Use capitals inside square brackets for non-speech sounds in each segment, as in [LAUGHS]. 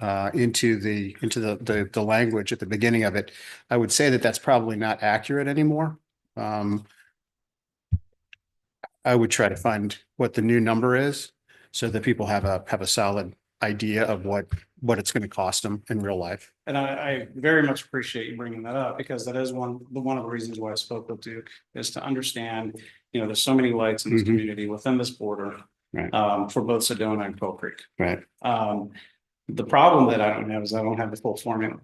uh, into the, into the, the, the language at the beginning of it. I would say that that's probably not accurate anymore. Um, I would try to find what the new number is so that people have a, have a solid idea of what, what it's going to cost them in real life. And I, I very much appreciate you bringing that up because that is one, the, one of the reasons why I spoke with Duke is to understand, you know, there's so many lights in this Mhm. community within this border. Right. Um, for both Sedona and Coal Creek. Right. Um, the problem that I don't have is I don't have the full formula.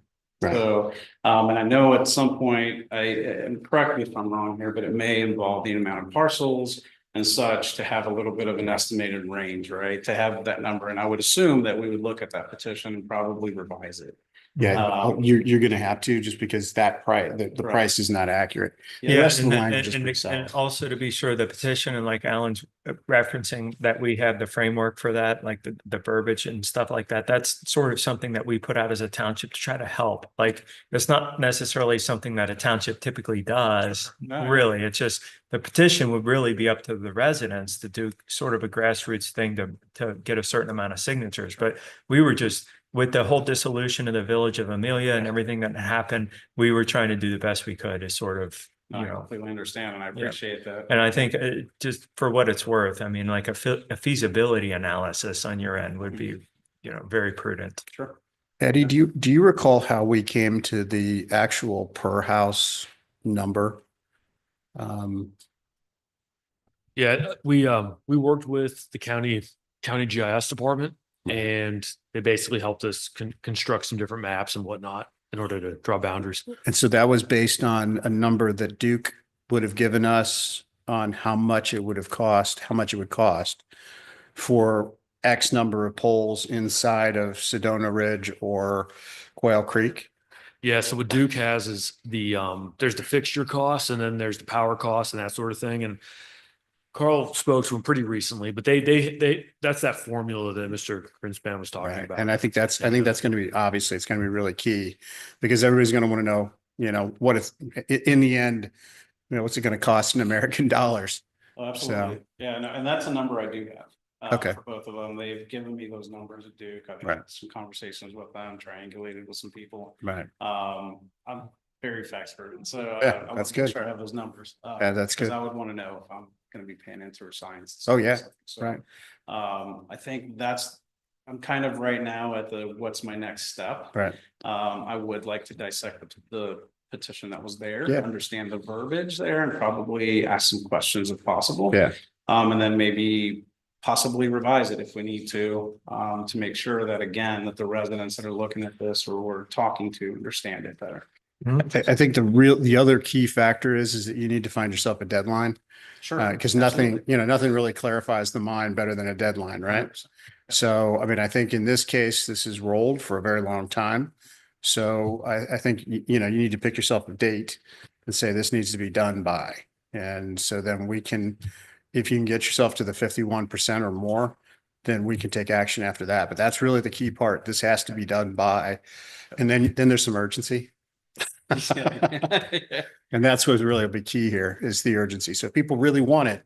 Right. So, um, and I know at some point, I, and correct me if I'm wrong here, but it may involve the amount of parcels and such to have a little bit of an estimated range, right? To have that number. And I would assume that we would look at that petition and probably revise it. Yeah, Um, you're, you're going to have to just because that price, the, the Right. price is not accurate. The Yeah, rest of and the that- language is and- pretty and- and solid. also to be sure, the petition and like Alan's uh, referencing that we have the framework for that, like the, the verbiage and stuff like that. That's sort of something that we put out as a township to try to help. Like, it's not necessarily something that a township typically does. No. Really, it's just the petition would really be up to the residents to do sort of a grassroots thing to, to get a certain amount of signatures. But we were just, with the whole dissolution of the village of Amelia and everything that happened, we were trying to do the best we could to sort of, No, you Oh, I know. completely understand and I appreciate that. And I think uh, just for what it's worth, I mean, like a fe- a feasibility analysis on your end would be, you know, very prudent. Sure. Eddie, do you, do you recall how we came to the actual per house number? Um, Yeah, we um we worked with the county county GIS department and they basically helped us con- construct some different maps and whatnot in order to draw boundaries. and so that was based on a number that Duke would have given us on how much it would have cost, how much it would cost for X number of poles inside of Sedona Ridge or Quail Creek. Yeah, so what Duke has is the um there's the fixture costs and then there's the power costs and that sort of thing. And Carl spoke to him pretty recently, but they they they that's that formula that Mr. Grinspan was talking Right. about. And I think that's, I think that's going to be, obviously, it's going to be really key because everybody's going to want to know, you know, what it's, i- in the end, you know, what's it going to cost in American [LAUGHS] dollars? Oh, Absolutely. Yeah, no, and that's a number I do have. uh, Okay. For both of them. They've given me those numbers at Duke. I've Right. had some conversations with them, triangulated with some people. Right. Um, I'm very fact driven, so. I- Yeah, I wanna that's make good. Sure I have those numbers. uh, Yeah, that's Because good. I would want to know if I'm going to be paying into or science. Oh, yeah, So, Right. Um, I think that's, I'm kind of right now at the, what's my next step? Right. Um, I would like to dissect the- the petition that was there, Yeah. understand the verbiage there and probably ask some questions if possible. Yeah. Um, and then maybe possibly revise it if we need to, um, to make sure that again, that the residents that are looking at this or we're talking to understand it better. I, I think the real, the other key factor is, is that you need to find yourself a deadline. Sure. Uh, cause nothing, you know, nothing really clarifies the mind better than a deadline, right? So, I mean, I think in this case, this is rolled for a very long time. So I, I think, y- you know, you need to pick yourself a date and say this needs to be done by. And so then we can, if you can get yourself to the fifty-one percent or more, then we can take action after that. But that's really the key part. This has to be done by. And then, then there's some urgency. [LAUGHS] Yeah. And that's what's really be key here is the urgency. So if people really want it,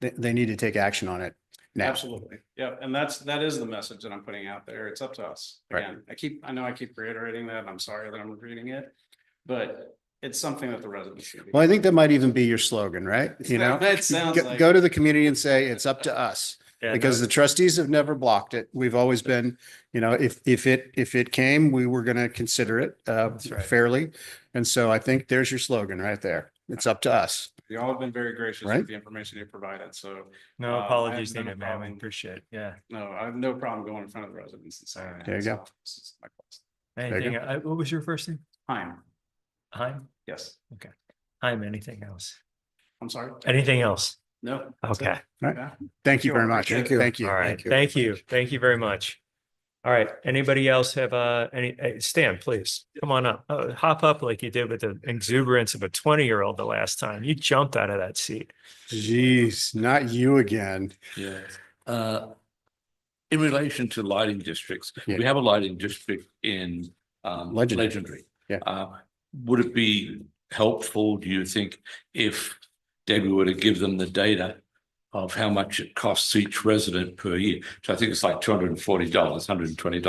they, they need to take action on it now. Absolutely. Yeah. And that's, that is the message that I'm putting out there. It's up to us. Right. Again, I keep, I know I keep reiterating that. and I'm sorry that I'm repeating it, but it's something that the residents. should be- Well, I think that might even be your slogan, right? You know? It sounds go, like. go to the community and say, it's up to us, Yeah, because the trustees have never blocked it. We've always been, you know, if, if it, if it came, we were going to consider it, uh, That's right. fairly. And so I think there's your slogan right there. It's up to us. Y'all have been very gracious Right? with the information you provided. So No uh, I apologies have no needed, man. We problem. appreciate, it. yeah. no, I have no problem going in front of the residents and saying. There you so, go. this is my question. you Anything, I- what was your first name? Fine. Heim? Yes, Heim, anything else? I'm sorry. Anything else? No. that's it. Okay, Right. Yeah. Thank you Sure. very much. Thank you. Thank all you. right. Thank you. Thank you very much. All right, anybody else have, uh, any, uh, Stan, please, come on up, Uh, hop up like you did with the exuberance of a twenty-year-old the last time. You jumped out of that seat. Jeez, not you again. Yeah. Uh, In relation to lighting districts, Yeah. we have a lighting district in um, Legendary. Legendary. Yeah. Uh, Would it be helpful, do you think, if Debbie were to give them the data of how much it costs each resident per year? So I think it's like two hundred and forty dollars, hundred and twenty dollars.